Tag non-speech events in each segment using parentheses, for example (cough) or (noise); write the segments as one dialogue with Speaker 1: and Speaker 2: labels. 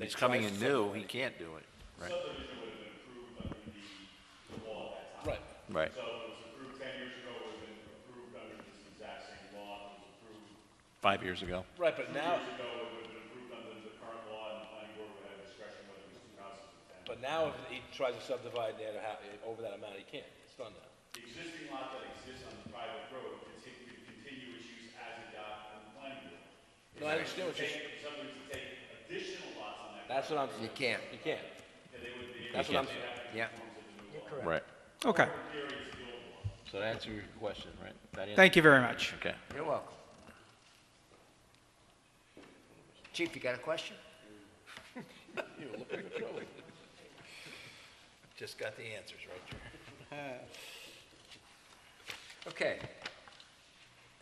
Speaker 1: It's coming in new, he can't do it. Right,
Speaker 2: Subdivision would have been approved under the, the law at that time.
Speaker 3: Right.
Speaker 1: right,
Speaker 2: So it was approved ten years ago, it would have been approved under this exact same law, it was approved
Speaker 1: five years ago.
Speaker 3: Right, but now,
Speaker 2: years ago, it would have been approved under the current law, and the planning board would have discretion whether it was two houses or ten.
Speaker 3: but now if he tries to subdivide that, ha- eh, over that amount, he can't, it's done now.
Speaker 2: The existing lot that exists on the private road continue, continuous use as adopted in the planning board.
Speaker 3: No, I understand what you're, s-
Speaker 2: If somebody was to take additional lots on that,
Speaker 3: that's what I'm,
Speaker 1: You can't.
Speaker 3: you can't.
Speaker 2: then they would be,
Speaker 3: That's what I'm saying.
Speaker 1: Yeah, right.
Speaker 4: Okay,
Speaker 1: So to answer your question, right? that is-
Speaker 4: thank you very much.
Speaker 1: Okay.
Speaker 5: You're welcome. Chief, you got a question?
Speaker 1: Just got the answers right there.
Speaker 5: Okay.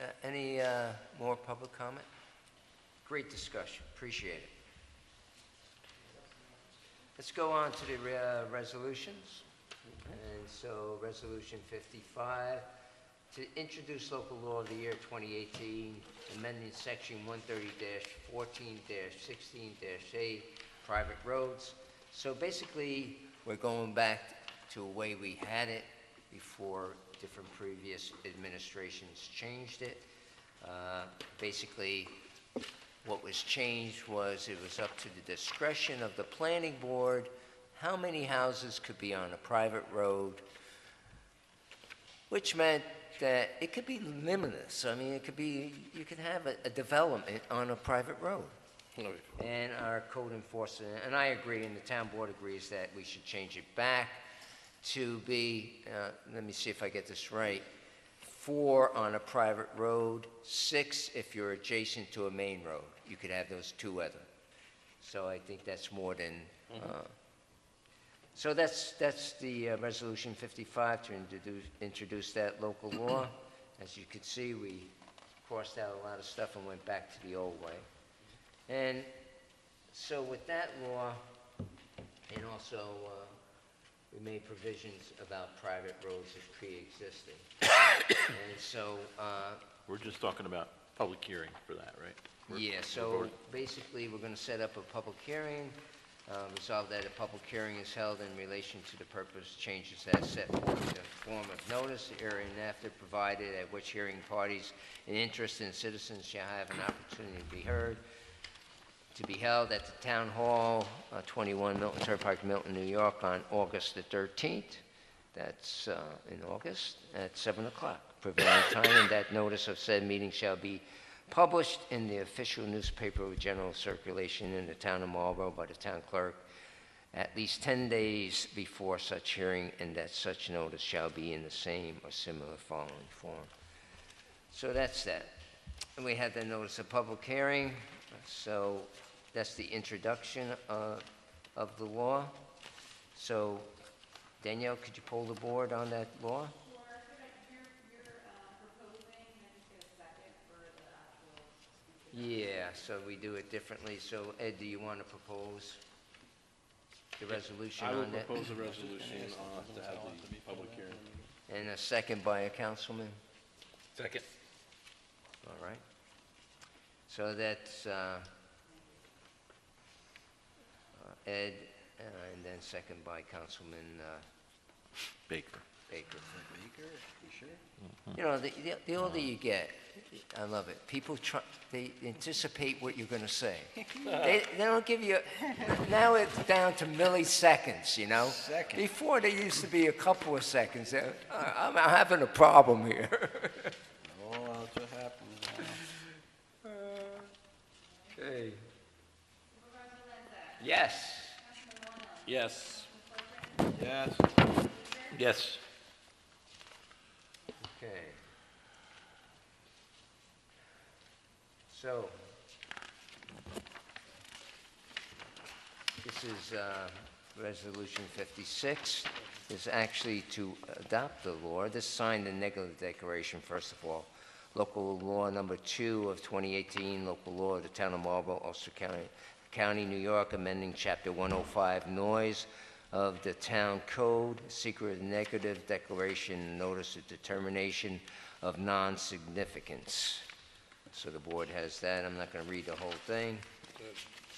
Speaker 5: Uh, Any uh, more public comment? Great discussion, appreciate it. Let's go on to the re- uh, resolutions. And so, Resolution 55, to introduce local law of the year 2018, amending Section 130-14-16-8, private roads. So basically, we're going back to a way we had it before different previous administrations changed it. Uh, Basically, what was changed was it was up to the discretion of the planning board how many houses could be on a private road, which meant that it could be limitless. I mean, it could be, you could have a, a development on a private road. And our code enforcement, and I agree, and the town board agrees that we should change it back to be, uh, let me see if I get this right, four on a private road, six if you're adjacent to a main road. You could have those two other. So I think that's more than, uh, so that's, that's the uh, Resolution 55 to introduce, introduce that local law. As you can see, we crossed out a lot of stuff and went back to the old way. And so with that law, and also, uh, we made provisions about private roads that pre-existing. (coughs) And so, uh,
Speaker 1: We're just talking about public hearing for that, right? We're-
Speaker 5: yeah, so basically, we're going to set up a public hearing, uh, resolve that a public hearing is held in relation to the purpose changes as set forth in the form of notice herein after provided at which hearing parties and interested citizens shall have an opportunity to be heard, to be held at the Town Hall, uh, 21 Milton Turnpike, Milton, New York, on August the 13th. That's uh, in August, at 7 o'clock prevailing time, and that notice of said meeting shall be published in the official newspaper with general circulation in the town of Marlborough by the town clerk at least 10 days before such hearing, and that such notice shall be in the same or similar following form. So that's that. And we had the notice of public hearing, so that's the introduction uh, of the law. So Danielle, could you poll the board on that law?
Speaker 6: Laura, could I, you're, you're uh, proposing, and just get a second for the actual speaker.
Speaker 5: Yeah, so we do it differently. So Ed, do you want to propose the resolution on that?
Speaker 3: a resolution uh, to have the public hearing.
Speaker 5: And a second by a councilman?
Speaker 1: Second.
Speaker 5: All right. So that's uh, uh, Ed, uh, and then second by Councilman uh,
Speaker 1: Baker.
Speaker 5: Baker. Mm-hmm. You know, the, the- the older you get, I love it, people try, they anticipate what you're gonna (laughs) say. They, they don't give you, now it's down to milliseconds, you know? Seconds. Before, there used to be a couple of seconds, They- "Uh, I'm having a problem here. Okay. Yes.
Speaker 3: Yes.
Speaker 1: Yes.
Speaker 5: Okay. So, this is uh, Resolution 56. Is actually to adopt the law. This signed the negative declaration, first of all. Local law number two of 2018, local law of the town of Marlborough, Ulster County, County, New York, amending Chapter 105 noise of the town code, secret negative declaration, notice of determination of non-significance. So the board has that. I'm not going to read the whole thing.